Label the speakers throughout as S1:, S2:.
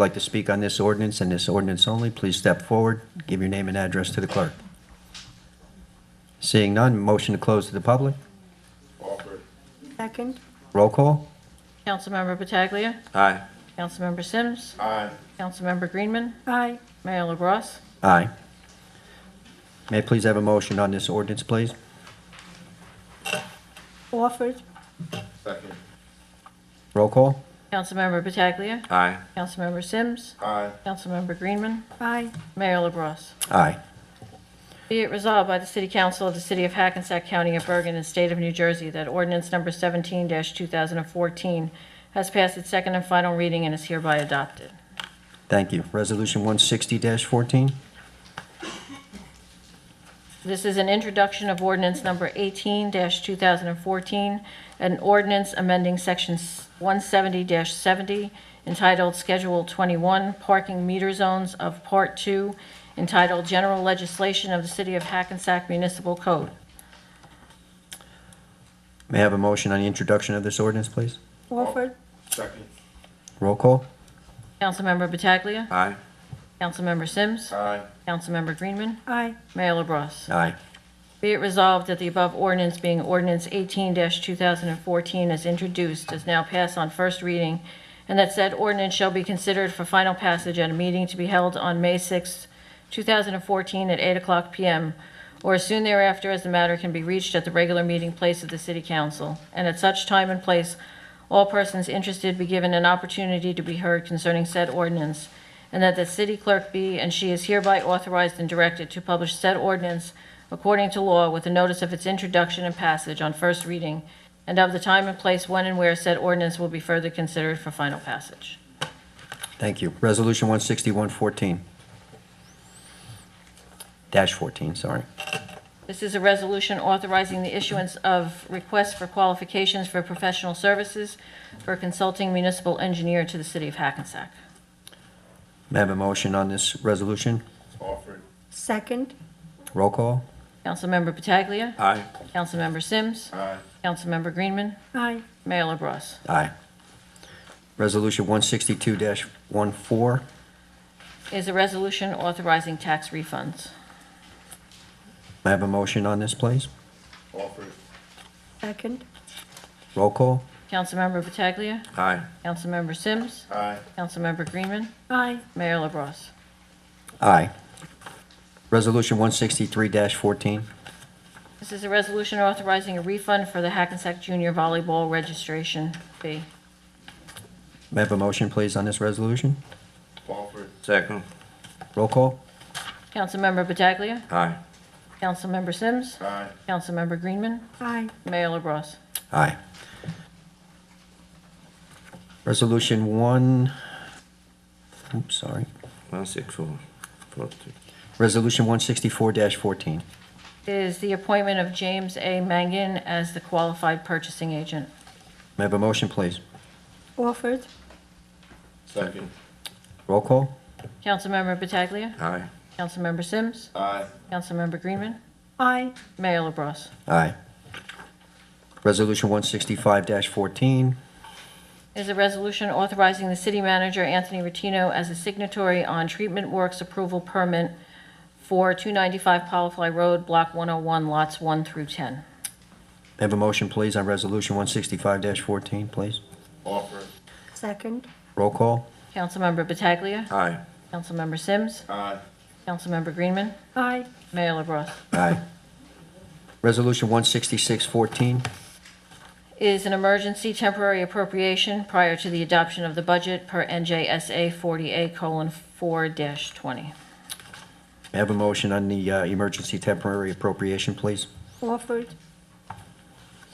S1: like to speak on this ordinance and this ordinance only, please step forward, give your name and address to the clerk. Seeing none, motion to close to the public.
S2: Offered.
S3: Second?
S1: Roll call?
S4: Councilmember Pataglia.
S5: Aye.
S4: Councilmember Sims.
S2: Aye.
S4: Councilmember Greenman.
S3: Aye.
S4: Mayor LaBrus.
S1: Aye. May I please have a motion on this ordinance, please?
S3: Offered?
S2: Second.
S1: Roll call?
S4: Councilmember Pataglia.
S5: Aye.
S4: Councilmember Sims.
S2: Aye.
S4: Councilmember Greenman.
S3: Aye.
S4: Mayor LaBrus.
S1: Aye.
S4: Be it resolved by the City Council of the City of Hackensack County of Bergen and State of New Jersey that ordinance number 17-2014 has passed its second and final reading and is hereby adopted.
S1: Thank you. Resolution 160-14?
S4: This is an introduction of ordinance number 18-2014, an ordinance amending section 170-70 entitled Schedule 21, Parking Meter Zones of Part 2, entitled General Legislation of the City of Hackensack Municipal Code.
S1: May I have a motion on the introduction of this ordinance, please?
S3: Offered?
S2: Second.
S1: Roll call?
S4: Councilmember Pataglia.
S5: Aye.
S4: Councilmember Sims.
S2: Aye.
S4: Councilmember Greenman.
S3: Aye.
S4: Mayor LaBrus.
S1: Aye.
S4: Be it resolved that the above ordinance being ordinance 18-2014 as introduced does now pass on first reading, and that said ordinance shall be considered for final passage at a meeting to be held on May 6, 2014 at 8:00 p.m. or as soon thereafter as the matter can be reached at the regular meeting place of the City Council, and at such time and place, all persons interested be given an opportunity to be heard concerning said ordinance, and that the city clerk be and she is hereby authorized and directed to publish said ordinance according to law with a notice of its introduction and passage on first reading, and of the time and place when and where said ordinance will be further considered for final passage.
S1: Thank you. Resolution 161-14? Dash 14, sorry.
S4: This is a resolution authorizing the issuance of requests for qualifications for professional services for a consulting municipal engineer to the city of Hackensack.
S1: May I have a motion on this resolution?
S2: Offered.
S3: Second?
S1: Roll call?
S4: Councilmember Pataglia.
S5: Aye.
S4: Councilmember Sims.
S2: Aye.
S4: Councilmember Greenman.
S3: Aye.
S4: Mayor LaBrus.
S1: Aye. Resolution 162-14?
S4: Is a resolution authorizing tax refunds.
S1: May I have a motion on this, please?
S2: Offered.
S3: Second?
S1: Roll call?
S4: Councilmember Pataglia.
S5: Aye.
S4: Councilmember Sims.
S2: Aye.
S4: Councilmember Greenman.
S3: Aye.
S4: Mayor LaBrus.
S1: Aye. Resolution 163-14?
S4: This is a resolution authorizing a refund for the Hackensack Junior Volleyball registration fee.
S1: May I have a motion, please, on this resolution?
S2: Offered.
S5: Second.
S1: Roll call?
S4: Councilmember Pataglia.
S5: Aye.
S4: Councilmember Sims.
S2: Aye.
S4: Councilmember Greenman.
S3: Aye.
S4: Mayor LaBrus.
S1: Aye. Resolution one, oops, sorry.
S5: One six four forty.
S1: Resolution 164-14.
S4: Is the appointment of James A. Mangan as the qualified purchasing agent.
S1: May I have a motion, please?
S3: Offered?
S2: Second.
S1: Roll call?
S4: Councilmember Pataglia.
S5: Aye.
S4: Councilmember Sims.
S2: Aye.
S4: Councilmember Greenman.
S3: Aye.
S4: Mayor LaBrus.
S1: Aye. Resolution 165-14.
S4: is a resolution authorizing the city manager, Anthony Rotino, as a signatory on treatment works approval permit for 295 Polyfly Road, Block 101, lots 1 through 10.
S1: May I have a motion, please, on Resolution 165-14, please?
S2: Offered.
S3: Second?
S1: Roll call?
S4: Councilmember Pataglia.
S5: Aye.
S4: Councilmember Sims.
S2: Aye.
S4: Councilmember Greenman.
S3: Aye.
S4: Mayor LaBrus.
S1: Aye. Resolution 166-14.
S4: Is an emergency temporary appropriation prior to the adoption of the budget per NJSA 40A:4-20.
S1: May I have a motion on the uh, emergency temporary appropriation, please?
S3: Offered?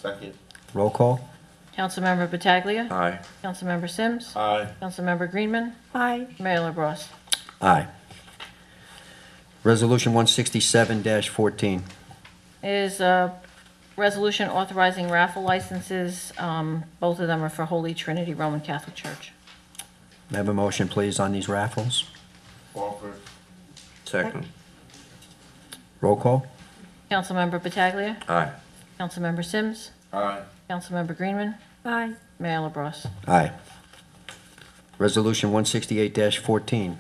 S2: Second.
S1: Roll call?
S4: Councilmember Pataglia.
S1: Uh.
S5: Aye.
S4: Councilmember Sims.
S2: Aye.
S4: Councilmember Greenman.
S3: Aye.
S4: Mayor LaBrus.
S1: Aye. Resolution 167-14.
S4: is a resolution authorizing raffle licenses. Um, Both of them are for Holy Trinity Roman Catholic Church.
S1: May I have a motion, please, on these raffles?
S2: Offered.
S5: Second.
S1: Roll call?
S4: Councilmember Pataglia,
S5: Aye.
S4: Councilmember Sims,
S2: Aye.
S4: Councilmember Greenman,
S3: Aye.
S4: Mayor LaBrus.
S1: Aye. Resolution 168-14,